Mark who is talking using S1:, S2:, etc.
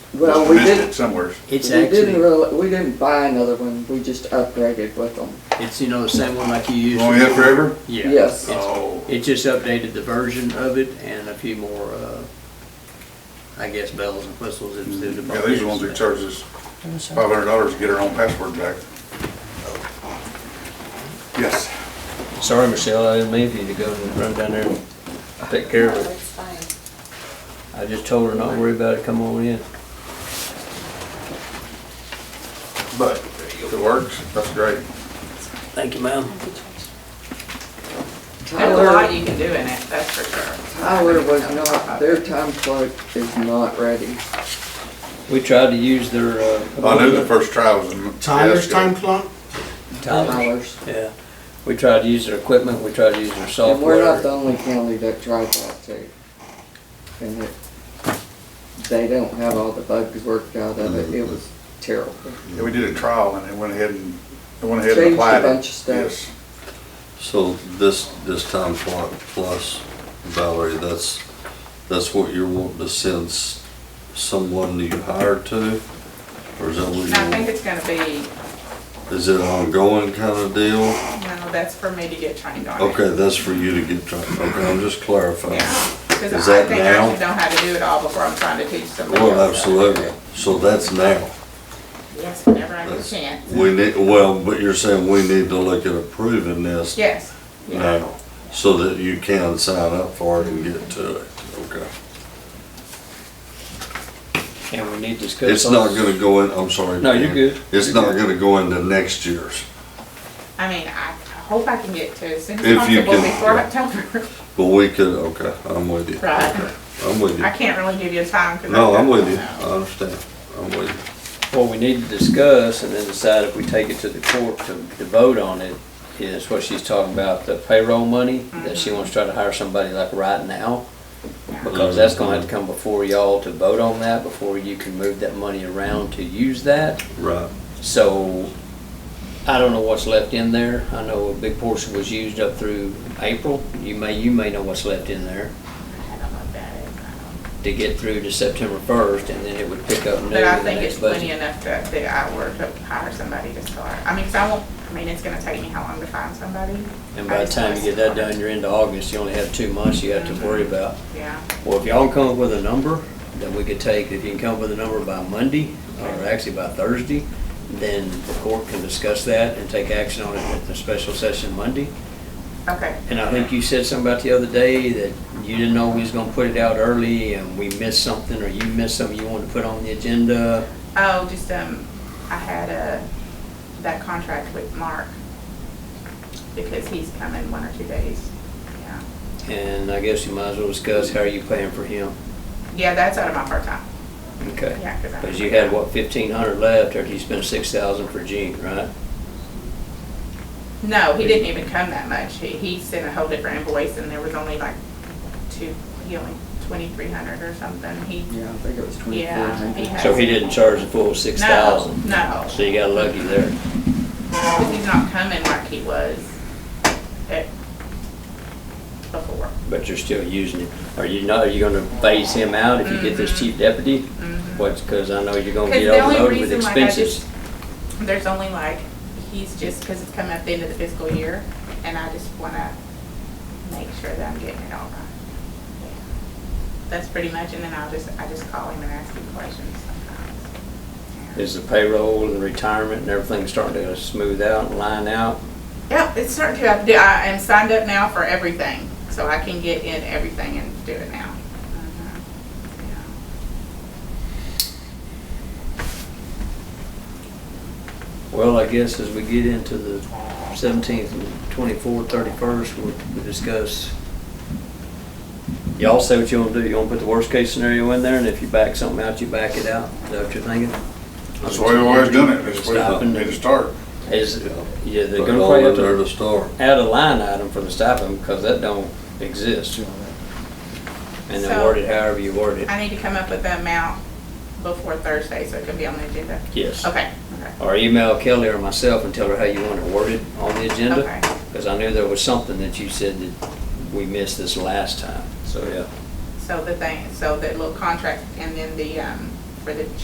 S1: Well,
S2: Must
S1: we
S2: have missed
S1: did-
S2: it Somewhere.
S1: We
S3: It's
S1: didn't
S3: actually,
S1: really, we didn't buy another one, we just upgraded with them.
S3: it's, you know, the same one like you use.
S2: Going in forever?
S3: Yeah.
S1: Yes.
S3: It's-
S2: Oh,
S3: It just updated the version of it and a few more, uh, I guess bells and whistles if the
S2: yeah,
S3: department.
S2: these are the ones that charge us five hundred dollars to get our own password back. Yes.
S4: Sorry, Michelle, I didn't leave you to go and run down there and take care of it.
S5: It's fine.
S4: I just told her not to worry about it, come on in.
S2: But if it works, that's great.
S3: Thank you, ma'am.
S5: There's a lot
S1: Tyler,
S5: you can do in it, that's for sure.
S1: Tyler was not, their time clock is not ready.
S4: We tried to use their, uh.
S2: I knew the first trial was in.
S6: Tyler's
S2: Fiasco.
S6: time clock?
S4: Tyler's, Yeah, we tried to use their equipment, we tried to use their
S1: And we're not the
S4: software.
S1: only county that tried that too. And it, they don't have all the bugs worked out of it, it was terrible.
S2: Yeah, we did a trial and it went ahead and, it went ahead
S1: Changed a
S2: and applied it.
S1: bunch of stuff.
S2: Yes.
S7: So this, this time clock plus Valerie, that's, that's what you're wanting to send s- someone you hired to? Or is that
S5: And
S7: what
S5: I
S7: you
S5: think
S7: want?
S5: it's gonna be,
S7: Is it an ongoing kind of deal?
S5: no, that's for me to get trained on it.
S7: Okay, that's for you to get, trained. okay, I'm just clarifying.
S5: Yeah,
S7: Is
S5: because I
S7: that
S5: think I should
S7: now?
S5: know how to do it all before I'm trying to teach somebody else.
S7: Well, absolutely. So that's now.
S5: Yes, whenever I get a
S7: That's-
S5: chance.
S7: We need, well, but you're saying we need to look at approving this
S5: Yes, yeah,
S7: now so that you can sign up for it and get to it. Okay.
S4: And we need to discuss.
S7: It's not gonna go in, I'm sorry.
S4: No, you're
S7: Dan.
S4: good.
S7: It's
S4: You're
S7: not
S4: good.
S7: gonna go into next year's,
S5: I mean, I I hope I can get to as soon as
S7: If you
S5: possible
S7: can-
S5: before
S7: yeah.
S5: October.
S7: but we could, okay, I'm with you.
S5: Right,
S7: I'm with
S5: I
S7: you.
S5: can't really give you a time because.
S7: No, I'm with you. I understand. I'm with you.
S4: What we need to discuss and then decide if we take it to the court to, to vote on it is what she's talking about, the payroll money, that she wants to try to hire somebody like right now. Because that's gonna have to come before y'all to vote on that, before you can move that money around to use that.
S7: Right.
S4: So, I don't know what's left in there. I know a big portion was used up through April. You may, you may know what's left in there
S5: I don't know about that.
S4: to get through to September first, and then it would pick up new in the
S5: But I think it's
S4: next
S5: plenty
S4: budget.
S5: enough that, that I work to hire somebody to start. I mean, 'cause I won't, I mean, it's gonna take me how long to find somebody?
S4: And by the time you get that done, you're into August. You only have two months you have to worry about.
S5: Yeah,
S4: Well, if y'all come up with a number that we could take, if you can come up with a number by Monday, or actually by Thursday, then the court can discuss that and take action on it at the special session Monday.
S5: okay.
S4: And I think you said something about the other day that you didn't know we was gonna put it out early and we missed something, or you missed something you wanted to put on the agenda.
S5: Oh, just, um, I had a, that contract with Mark, because he's coming one or two days, yeah.
S4: And I guess you might as well discuss how are you paying for him.
S5: Yeah, that's out of my part-time,
S4: Okay.
S5: yeah, because I.
S4: Cause you had, what, fifteen hundred left after you spent six thousand for Gene, right?
S5: No, he didn't even come that much, he, he sent a whole different invoice, and there was only like two, he only twenty-three hundred or something, he.
S1: Yeah, I think it was twenty-four
S5: Yeah,
S1: hundred.
S5: he
S4: So he
S5: has-
S4: didn't charge the full six
S5: No,
S4: thousand.
S5: no.
S4: So you got lucky there.
S5: Because he's not coming like he was at before.
S4: But you're still using it. Are you not, are you gonna phase him out if you get this chief deputy? What's, cause I know you're gonna
S5: Mm-hmm. Because
S4: get
S5: the only
S4: overloaded with
S5: reason, like, I
S4: expenses.
S5: just, there's only like, he's just, because it's coming up the end of the fiscal year, and I just want to make sure that I'm getting it all right. That's pretty much, and then I'll just, I just call him and ask him questions sometimes.
S4: Is the payroll and retirement and everything starting to smooth out and line out?
S5: Yep, it's starting to, I do- I am signed up now for everything, so I can get in everything and do it now. Mhm.
S4: Uh-huh.
S5: Yeah.
S4: Well, I guess as we get into the seventeenth and twenty-fourth, thirty-first, we'll we'll discuss. Y'all say what you wanna do. You wanna put the worst-case scenario in there, and if you back something out, you back it out. Is that what you're thinking?
S2: That's why we've always done it. That's why we
S4: Stopping.
S2: made to start.
S4: Is, yeah, they're
S7: Put
S4: gonna
S7: it all
S4: probably have
S7: in there
S4: to
S7: to start.
S4: add a line item for the stipend, because that don't exist. And then
S5: So-
S4: word it however you word it.
S5: I need to come up with the amount before Thursday, so it can be on the agenda.
S4: Yes.
S5: Okay, okay,
S4: Or email Kelly or myself and tell her how you want it worded on the agenda.
S5: okay.
S4: Because I knew there was something that you said that we missed this last time, so, yeah.
S5: So the thing, so the little contract and then the, um, for the